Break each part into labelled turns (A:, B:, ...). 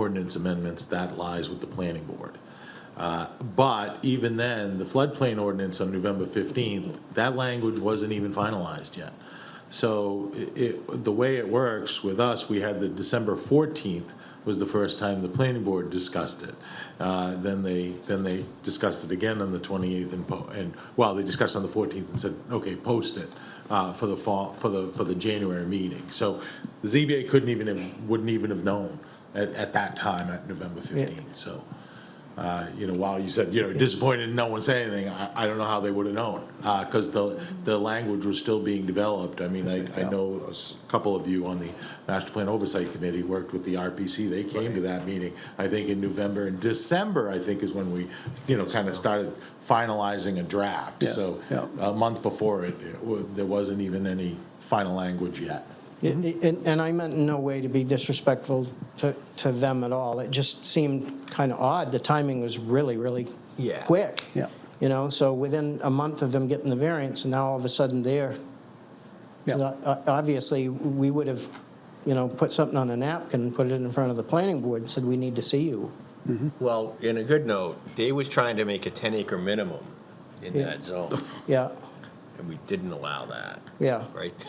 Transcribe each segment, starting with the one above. A: ordinance amendments, that lies with the planning board. Uh, But even then, the floodplain ordinance on November 15th, that language wasn't even finalized yet. So i- it, the way it works with us, we had the December 14th was the first time the planning board discussed it. Uh, Then they, then they discussed it again on the 28th and, po- and, well, they discussed on the 14th and said, okay, post it uh, for the fall, for the, for the January meeting. So the ZBA couldn't even, have- wouldn't even have known at, at that time, at November 15th, so. uh, You know, while you said, you know, disappointed no one said anything, I, I don't know how they would have known. Because the, the language was still being developed. I mean, I, I know a s- couple of you on the Master Plan Oversight Committee worked with the RPC. They came to that meeting, I think in November and December, I think is when we, you know, kind of started finalizing a draft.
B: Yeah,
A: So
B: yeah.
A: a month before it, it wa- there wasn't even any final language yet.
B: And, and I meant in no way to be disrespectful to, to them at all. It just seemed kind of odd. The timing was really, really
C: Yeah.
B: quick.
D: Yeah.
B: You know, so within a month of them getting the variance, and now all of a sudden they're,
D: Yeah.
B: So, uh, obviously, we would have, you know, put something on a napkin, put it in front of the planning board, and said, we need to see you.
C: Well, in a good note, they was trying to make a 10 acre minimum in that zone,
B: Yeah,
C: and we didn't allow that,
B: yeah.
C: right?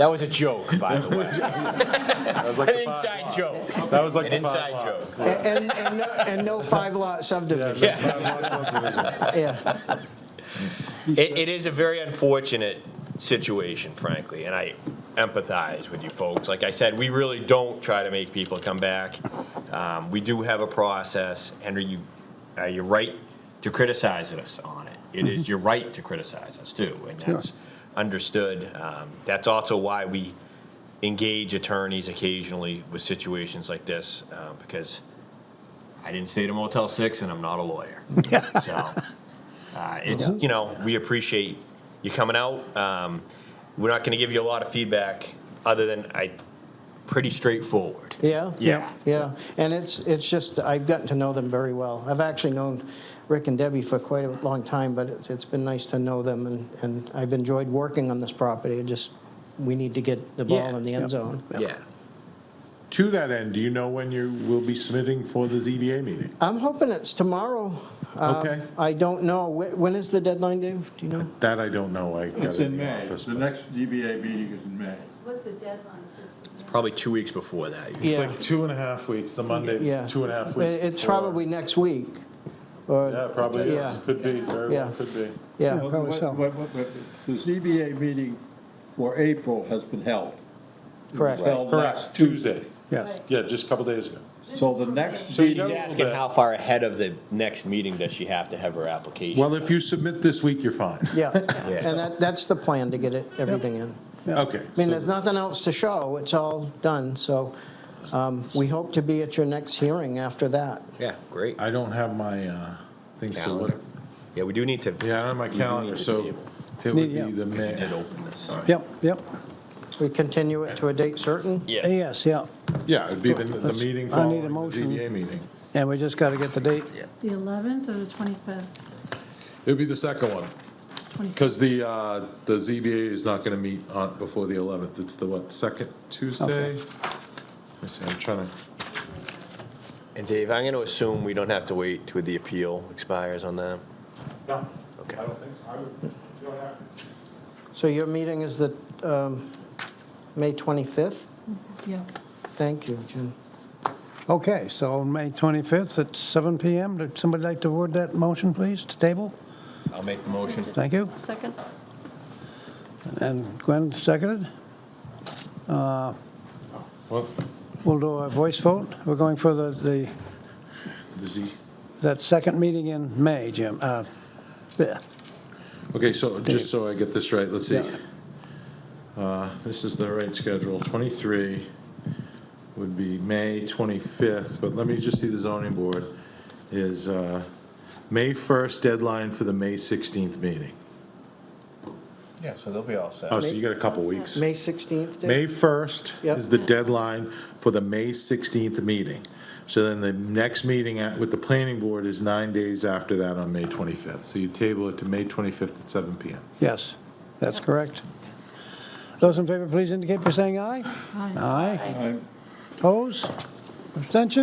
C: That was a joke, by the way,
A: That was
C: an inside joke.
A: That was like
C: An inside joke.
B: And, and no- and no five-lot subdivision, yeah.
C: It, it is a very unfortunate situation, frankly, and I empathize with you folks. Like I said, we really don't try to make people come back. Um, we do have a process, Henry, you, uh, you're right to criticize us on it. It is your right to criticize us too, and that's understood. Um, that's also why we engage attorneys occasionally with situations like this, uh, because I didn't stay at a Motel Six and I'm not a lawyer. So, uh, it's, you know, we appreciate you coming out. Um, we're not going to give you a lot of feedback other than I, pretty straightforward.
B: Yeah?
C: Yeah.
B: Yeah, and it's, it's just, I've gotten to know them very well. I've actually known Rick and Debbie for quite a long time, but it's, it's been nice to know them, and, and I've enjoyed working on this property. It just, we need to get the ball
C: Yeah.
B: in the end zone.
C: Yeah.
A: To that end, do you know when you will be submitting for the ZBA meeting?
B: I'm hoping it's tomorrow. Um,
A: Okay.
B: I don't know, Wh- when is the deadline, Dave? Do you know?
A: That I don't know, I got
E: It's
A: it in
E: in
A: the
E: May.
A: office.
E: The
A: but-
E: next GBA meeting is in May.
F: What's the deadline? Just-
C: Probably two weeks before that.
A: It's
B: Yeah,
A: like two and a half weeks, the Monday,
B: yeah.
A: two and a half
B: It-
A: weeks.
B: It's
A: before.
B: probably next week, or...
A: Yeah, probably
B: Yeah.
A: is, could be, very well,
B: Yeah.
A: could be.
B: Yeah,
E: Well,
D: probably
E: what-
D: so.
E: what- what- what- The ZBA meeting for April has been held.
B: correct.
E: Held
A: Correct,
E: last
A: Tuesday,
D: Yeah,
F: Right.
A: yeah, just a couple days ago.
E: So the next,
A: So you
E: meeting-
A: got a little bit.
C: far ahead of the next meeting does she have to have her application?
A: Well, if you submit this week, you're fine.
B: Yeah, and that, that's the plan, to get it, everything in.
A: Okay.
B: I mean,
A: so-
B: there's nothing else to show, it's all done, so um, we hope to be at your next hearing after that.
C: yeah, great.
A: I don't have my, uh, thing, so what,
C: Calendar. Yeah, we do need to.
A: yeah, I don't have my calendar,
C: to
A: so
C: be
A: it would
D: Yeah.
A: be the
C: We did
A: May.
C: open this.
D: yep, yep.
B: We continue it to a date certain?
C: Yeah.
D: Yes, yeah.
A: Yeah, it'd be the, the meeting
D: I need a
A: following the
D: motion.
A: ZBA meeting.
D: And we just got to get the date.
F: The 11th or the 25th?
A: It'd be the second one, because the, uh, the ZBA is not gonna meet on, before the eleventh, it's the what, second Tuesday? Let me see, I'm trying to.
C: And Dave, I'm going to assume we don't have to wait till the appeal expires on that.
A: No,
C: Okay.
A: don't think so, I would, you don't have.
B: So your meeting is the um, May 25th?
F: Yeah.
B: Thank you, Jim.
D: Okay, so May 25th at seven PM. Would somebody like to word that motion, please, to table?
C: I'll make the motion.
D: Thank you.
F: Second?
D: And Gwen seconded.
A: Well,
D: We'll do a voice vote. We're going for the, the,
A: the Z,
D: that second meeting in May, Jim. Uh, yeah.
A: okay, so just so I get this right, let's see.
D: Yeah.
A: Uh, This is the right schedule, 23 would be May 25th, but let me just see the zoning board, is uh, May 1st deadline for the May 16th meeting.
C: Yeah, so they'll be all set.
A: Oh, so you got a couple weeks.
B: May 16th? Dave?
A: May 1st
B: Yep.
A: is the deadline for the May 16th meeting. So then the next meeting at- with the planning board is nine days after that on May 25th. So you table it to May 25th at 7 PM.
D: Yes, that's correct. Those in favor, please indicate by saying aye.
F: Aye.
D: Aye.
E: I'm
D: Opposed? Abstention?